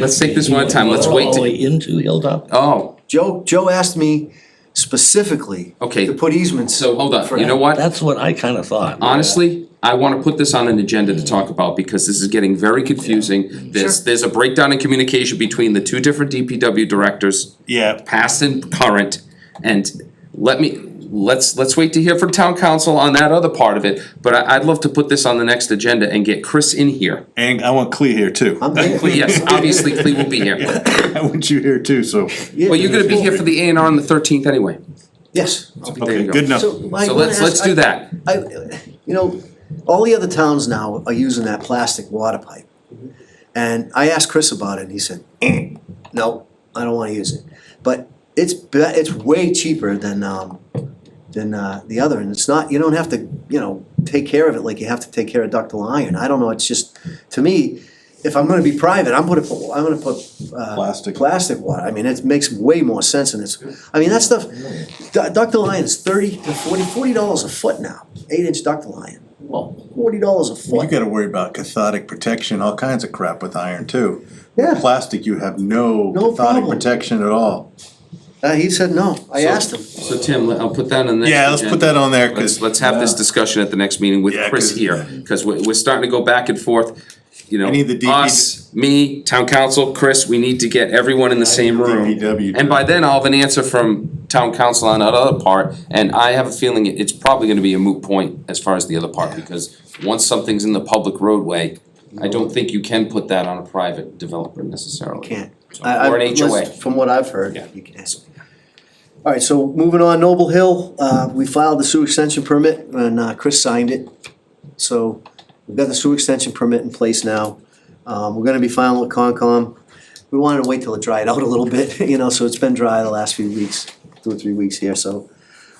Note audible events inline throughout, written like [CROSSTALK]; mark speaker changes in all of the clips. Speaker 1: Let's take this one at a time, let's wait
Speaker 2: All the
Speaker 1: to,
Speaker 2: way into Hilltop?
Speaker 1: oh,
Speaker 3: Joe, Joe asked me specifically
Speaker 1: Okay.
Speaker 3: to put easements.
Speaker 1: so hold
Speaker 3: for-
Speaker 1: on, you know what?
Speaker 2: That's what I kinda thought.
Speaker 1: Honestly, I wanna put this on an agenda to talk about because this is getting very confusing. There's,
Speaker 3: Sure.
Speaker 1: there's a breakdown in communication between the two different DPW directors,
Speaker 4: Yeah,
Speaker 1: past and current. And let me, let's, let's wait to hear from town council on that other part of it. But I, I'd love to put this on the next agenda and get Chris in here.
Speaker 4: and I want Clea here too.
Speaker 3: I'm
Speaker 1: Cle-
Speaker 3: thinking-
Speaker 1: Yes, obviously Cleve will be here.
Speaker 4: [LAUGHS] I want you here too, so.
Speaker 1: Well, you're gonna be here for the A and R on the thirteenth anyway.
Speaker 3: Yes.
Speaker 1: There
Speaker 4: Okay,
Speaker 1: you go.
Speaker 4: good enough.
Speaker 3: So Mike,
Speaker 1: So
Speaker 3: I wanna
Speaker 1: let's,
Speaker 3: ask-
Speaker 1: let's do
Speaker 3: I-
Speaker 1: that.
Speaker 3: I, you know, all the other towns now are using that plastic water pipe. And I asked Chris about it and he said, "Eh, no, I don't wanna use it. But it's be- it's way cheaper than um than uh the other and it's not, you don't have to, you know, take care of it like you have to take care of ductile iron. I don't know, it's just, to me, if I'm gonna be private, I'm gonna put, I'm gonna put uh
Speaker 4: Plastic.
Speaker 3: plastic water. I mean, it makes way more sense and it's, I mean, that stuff, du- ductile iron is thirty to forty, forty dollars a foot now, eight inch ductile iron. Forty dollars a
Speaker 4: You
Speaker 3: foot,
Speaker 4: gotta worry about cathodic protection, all kinds of crap with iron too.
Speaker 3: yeah.
Speaker 4: Plastic, you have no
Speaker 3: No
Speaker 4: cathodic
Speaker 3: problem.
Speaker 4: protection at all.
Speaker 3: Uh, he said no, I asked him.
Speaker 1: So Tim, let- I'll put that on the next.
Speaker 4: Yeah, let's put
Speaker 1: agenda.
Speaker 4: that on there,
Speaker 1: Let's,
Speaker 4: cause.
Speaker 1: let's have this discussion at the next meeting with
Speaker 4: Yeah,
Speaker 1: Chris
Speaker 4: 'cause-
Speaker 1: here, cause we're, we're starting to go back and forth. You
Speaker 4: I need the
Speaker 1: know,
Speaker 4: DP
Speaker 1: us, me, town council, Chris, we need to get everyone in the same room.
Speaker 4: DPW.
Speaker 1: And by then I'll have an answer from town council on that other part, and I have a feeling it- it's probably gonna be a moot point as far as the other part, because once something's in the public roadway, I don't think you can put that on a private developer necessarily.
Speaker 3: Can't.
Speaker 1: So-
Speaker 3: I- I-
Speaker 1: Or an HOA.
Speaker 3: From what I've heard,
Speaker 1: Yeah.
Speaker 3: you can. All right, so moving on, Noble Hill, uh, we filed the sewer extension permit and, uh, Chris signed it. So we've got the sewer extension permit in place now. Um, we're gonna be filing with Concom. We wanted to wait till it dried out a little bit, [LAUGHS] you know, so it's been dry the last few weeks, two or three weeks here, so.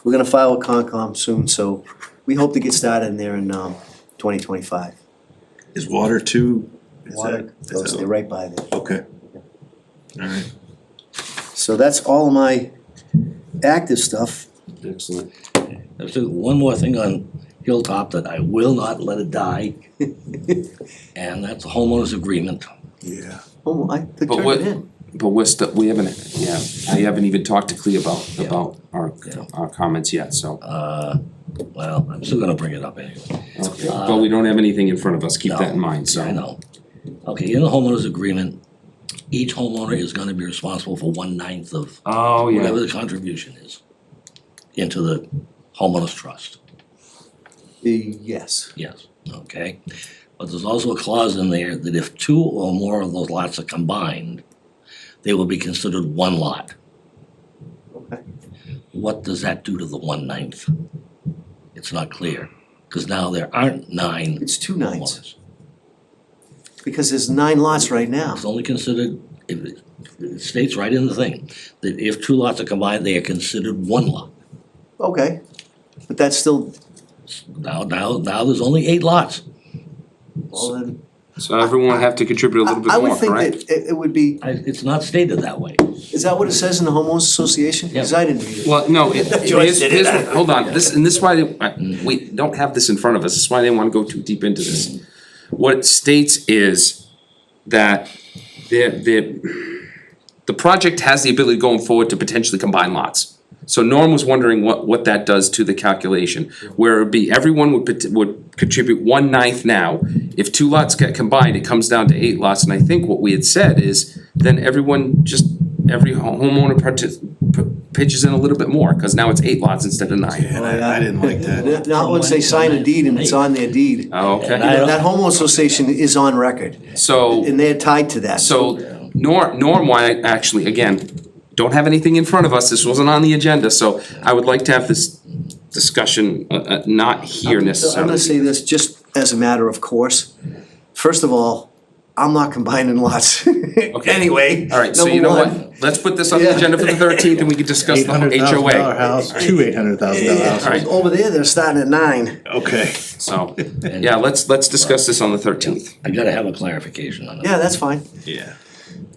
Speaker 3: We're gonna file with Concom soon, so we hope to get started in there in, um, twenty twenty-five.
Speaker 4: Is water too? is
Speaker 3: Water
Speaker 4: that- is
Speaker 3: goes
Speaker 4: that-
Speaker 3: there right by there.
Speaker 4: Okay. Alright.
Speaker 3: So that's all my active stuff.
Speaker 1: Excellent.
Speaker 2: There's one more thing on Hilltop that I will not let
Speaker 1: [LAUGHS]
Speaker 2: it die. And that's the homeowners agreement.
Speaker 4: Yeah.
Speaker 3: Oh, I could
Speaker 1: But
Speaker 3: turn
Speaker 1: what-
Speaker 3: it in.
Speaker 1: But we're still, we haven't, yeah, I haven't even talked to Clea about,
Speaker 2: Yeah.
Speaker 1: about our,
Speaker 2: Yeah.
Speaker 1: our comments yet, so.
Speaker 2: Uh, well, I'm still gonna bring it up anyway.
Speaker 1: Okay, But we don't have anything in front of us, keep
Speaker 2: No.
Speaker 1: that in mind, so.
Speaker 2: I know. Okay, in the homeowners agreement, each homeowner is gonna be responsible for one ninth of
Speaker 1: Oh,
Speaker 2: whatever
Speaker 1: yeah,
Speaker 2: the contribution is into the homeowners trust,
Speaker 3: Uh, Yes.
Speaker 2: yes, okay? But there's also a clause in there that if two or more of those lots are combined, they will be considered one lot.
Speaker 3: Okay.
Speaker 2: What does that do to the one ninth? It's not clear, cause now there aren't nine
Speaker 3: It's two nines,
Speaker 2: homeowners.
Speaker 3: because there's nine lots right now.
Speaker 2: It's only considered, if it it states right in the thing, that if two lots are combined, they are considered one lot.
Speaker 3: Okay, but that's still,
Speaker 2: Now, now, now there's only eight lots.
Speaker 3: well then,
Speaker 1: so everyone have to contribute a
Speaker 3: I
Speaker 1: little bit
Speaker 3: I would
Speaker 1: more,
Speaker 3: think that
Speaker 1: correct?
Speaker 3: it, it would be,
Speaker 2: I, it's not stated that way.
Speaker 3: is that what it says in the homeowners association? Because
Speaker 2: Yeah.
Speaker 3: I didn't read it.
Speaker 1: Well,
Speaker 3: [LAUGHS]
Speaker 1: no, it,
Speaker 3: Joyce
Speaker 1: here's,
Speaker 3: did
Speaker 1: here's, what- hold on, this, and this is why, they- I-
Speaker 2: Mm.
Speaker 1: we don't have this in front of us, this is why they wanna go too deep into
Speaker 2: Mm.
Speaker 1: this. What it states is that the, the, the project has the ability going forward to potentially combine lots. So Norm was wondering what, what that does to the calculation, where it'd be, everyone would, pot- would contribute one ninth now. If two lots get combined, it comes down to eight lots, and I think what we had said is, then everyone just, every ho- homeowner partic- p- pitches in a little bit more, cause now it's eight lots instead of nine.
Speaker 4: And I, I didn't like that.
Speaker 3: Not- Not once they sign a deed and it's on their deed.
Speaker 1: Oh,
Speaker 2: And I-
Speaker 1: Okay,
Speaker 3: That homeowners association is on record,
Speaker 1: so.
Speaker 3: and they're tied to that.
Speaker 1: So Norm, Norm, why, actually, again, don't have anything in front of us, this wasn't on the agenda, so I would like to have this discussion, uh, uh, not here
Speaker 3: So I'm
Speaker 1: necessarily.
Speaker 3: gonna say this just as a matter of course. First of all, I'm not combining lots. [LAUGHS] Anyway,
Speaker 1: Alright, so you know
Speaker 3: number one.
Speaker 1: what, let's put this on the
Speaker 3: Yeah.
Speaker 1: agenda for the thirteenth and we can discuss
Speaker 4: Eight
Speaker 1: the
Speaker 3: [LAUGHS]
Speaker 1: whole
Speaker 4: hundred thousand dollar
Speaker 1: HOA,
Speaker 4: house, two eight hundred thousand dollar
Speaker 3: Yeah,
Speaker 4: houses.
Speaker 1: Alright.
Speaker 3: over there, they're starting at nine.
Speaker 4: Okay.
Speaker 1: so, yeah, let's, let's discuss this on the thirteenth.
Speaker 2: I gotta have a clarification on that.
Speaker 3: Yeah, that's fine.
Speaker 4: Yeah.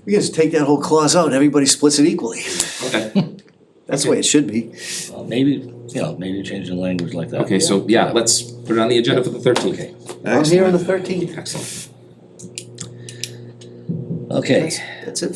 Speaker 3: We can just take that whole clause out, and everybody splits it equally.
Speaker 1: Okay,
Speaker 3: That's the way it should be.
Speaker 2: Uh, Maybe, you know, maybe change the language like that.
Speaker 1: okay, so, yeah, let's put it on the agenda for the thirteenth.
Speaker 3: I'm here on the thirteenth.
Speaker 1: Excellent.
Speaker 2: Okay.
Speaker 3: That's it